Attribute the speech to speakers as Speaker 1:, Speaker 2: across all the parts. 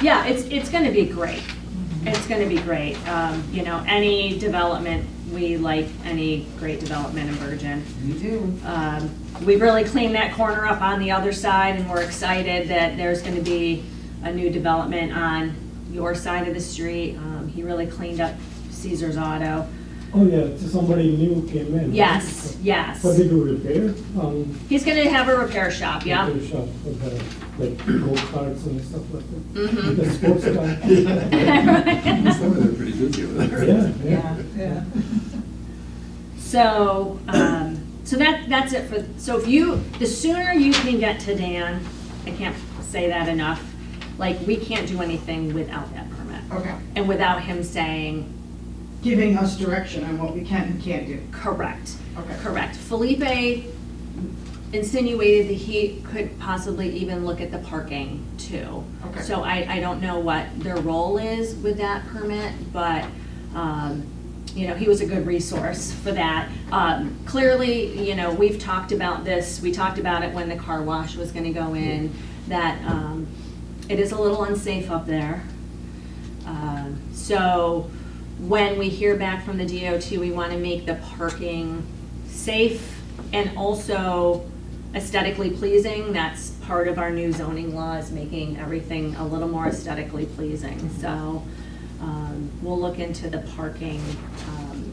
Speaker 1: Yeah, it's, it's gonna be great. It's gonna be great. Um, you know, any development, we like any great development in Virgin.
Speaker 2: We do.
Speaker 1: Um, We really cleaned that corner up on the other side, and we're excited that there's going to be a new development on your side of the street. Um, He really cleaned up Caesar's Auto.
Speaker 3: Oh, yeah, so somebody new came in. right?
Speaker 1: Yes, yes.
Speaker 3: What they do repair, um,
Speaker 1: He's going to have a repair shop, yeah?
Speaker 3: repair shop, with, uh, like go karts and stuff like that.
Speaker 1: Mhm.
Speaker 3: The sports car.
Speaker 4: Some of them are pretty busy over there.
Speaker 3: Yeah,
Speaker 2: Yeah,
Speaker 3: yeah.
Speaker 2: yeah.
Speaker 1: So, um, so that, that's it for, so if you, the sooner you can get to Dan, I can't say that enough, like, we can't do anything without that permit.
Speaker 2: Okay.
Speaker 1: And without him saying,
Speaker 2: Giving us direction on what we can and can't do.
Speaker 1: Correct.
Speaker 2: Okay.
Speaker 1: Correct. Felipe insinuated that he could possibly even look at the parking too.
Speaker 2: Okay.
Speaker 1: So I, I don't know what their role is with that permit, but, um, you know, he was a good resource for that. Um, clearly, you know, we've talked about this, we talked about it when the car wash was gonna go in, that, um, it is a little unsafe up there. Um, So when we hear back from the DOT, we want to make the parking safe and also aesthetically pleasing. That's part of our new zoning law is making everything a little more aesthetically pleasing. So um, we'll look into the parking, um,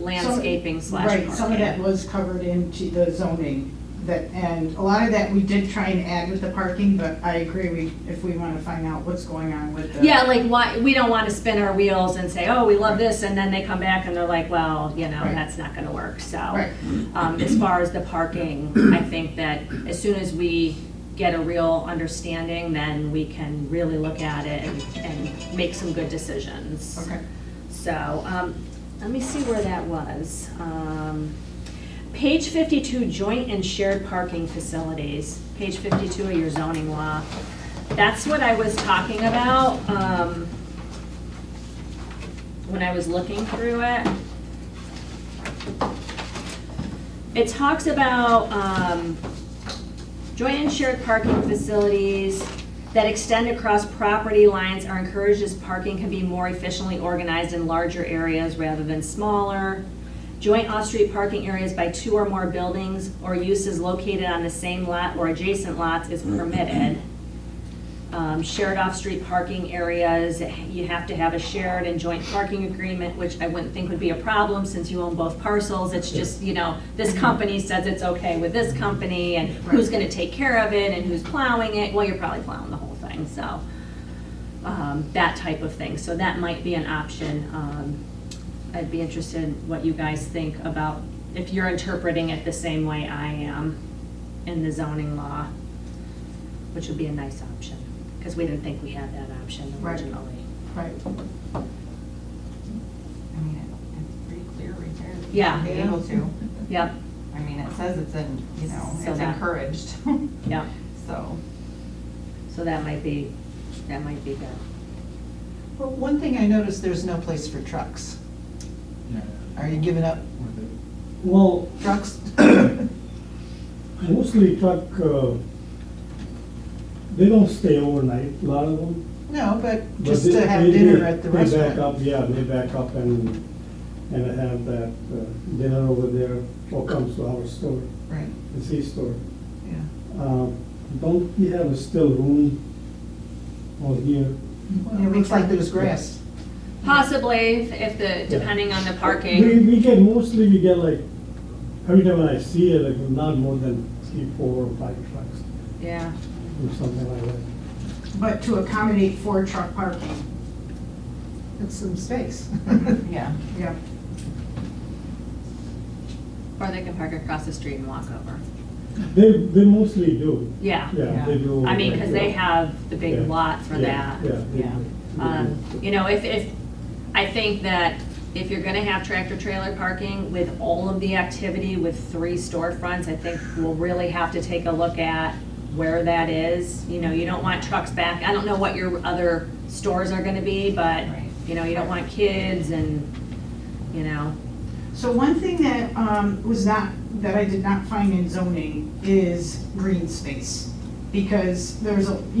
Speaker 1: landscaping
Speaker 2: Some-
Speaker 1: slash
Speaker 2: Right, some of that
Speaker 1: parking.
Speaker 2: was covered into the zoning, that, and a lot of that we did try and add with the parking, but I agree, we, if we want to find out what's going on with the.
Speaker 1: Yeah, like why, we don't want to spin our wheels and say, oh, we love this, and then they come back and they're like, well, you know,
Speaker 2: Right.
Speaker 1: that's not going to work, so.
Speaker 2: Right.
Speaker 1: Um, As far as the parking, I think that as soon as we get a real understanding, then we can really look at it and- and make some good decisions.
Speaker 2: Okay.
Speaker 1: So, um, let me see where that was. Um, Page 52, joint and shared parking facilities, page 52 of your zoning law. That's what I was talking about um, when I was looking through it. It talks about um, joint and shared parking facilities that extend across property lines are encouraged as parking can be more efficiently organized in larger areas rather than smaller. Joint off-street parking areas by two or more buildings or uses located on the same lot or adjacent lots is permitted. Um, Shared off-street parking areas, you have to have a shared and joint parking agreement, which I wouldn't think would be a problem since you own both parcels. It's just, you know, this company says it's okay with this company and who's gonna take care of it and who's plowing it. Well, you're probably plowing the whole thing, so, um, that type of thing. So that might be an option. Um, I'd be interested in what you guys think about, if you're interpreting it the same way I am in the zoning law which would be a nice option, because we didn't think we had that option
Speaker 2: Right.
Speaker 1: originally.
Speaker 2: Right.
Speaker 5: I mean, it- it's pretty clear right there. that you
Speaker 1: Yeah.
Speaker 5: should Be able to.
Speaker 1: Yep,
Speaker 5: I mean, it says it's in, you know,
Speaker 1: So
Speaker 5: it's
Speaker 1: that-
Speaker 5: encouraged,
Speaker 1: yep,
Speaker 5: so.
Speaker 1: so that might be, that might be good.
Speaker 6: Well, one thing I noticed, there's no place for trucks. Are you giving up
Speaker 3: Well,
Speaker 6: trucks?
Speaker 3: mostly truck, uh, they don't stay overnight, a lot of them.
Speaker 6: No, but
Speaker 3: But
Speaker 6: just
Speaker 3: they-
Speaker 6: to have
Speaker 3: they-
Speaker 6: dinner
Speaker 3: they-
Speaker 6: at the
Speaker 3: They back up,
Speaker 6: restaurant.
Speaker 3: yeah, they back up and, and have that uh, dinner over there, or comes to our store,
Speaker 6: Right,
Speaker 3: the C store.
Speaker 6: yeah.
Speaker 3: Um, Don't we have a still room over here?
Speaker 6: Well, It looks like there's grass.
Speaker 1: Possibly, if- if the, depending on the
Speaker 3: We,
Speaker 1: parking.
Speaker 3: we get, mostly we get like, every time when I see it, like not more than three, four or five trucks
Speaker 1: Yeah,
Speaker 3: or something like that.
Speaker 2: But to accommodate for truck parking,
Speaker 6: It's some space.
Speaker 5: Yeah.
Speaker 2: yeah.
Speaker 1: or they can park across the street and walk over.
Speaker 3: They, they mostly do.
Speaker 1: Yeah,
Speaker 3: Yeah, they
Speaker 5: Yeah.
Speaker 3: do.
Speaker 1: I mean, because they
Speaker 3: Yeah.
Speaker 1: have the
Speaker 3: Yeah.
Speaker 1: big lot for
Speaker 3: Yeah,
Speaker 1: that.
Speaker 3: Yeah. they
Speaker 5: Yeah.
Speaker 3: do.
Speaker 1: Um, You know, if, if, I think that if you're gonna have tractor trailer parking with all of the activity with three storefronts, I think we'll really have to take a look at where that is. You know, you don't want trucks back, I don't know what your other stores are gonna be, but,
Speaker 5: Right.
Speaker 1: you know, you don't want kids and, you know,
Speaker 2: So one thing that um, was not, that I did not find in zoning is green space. Because there's a,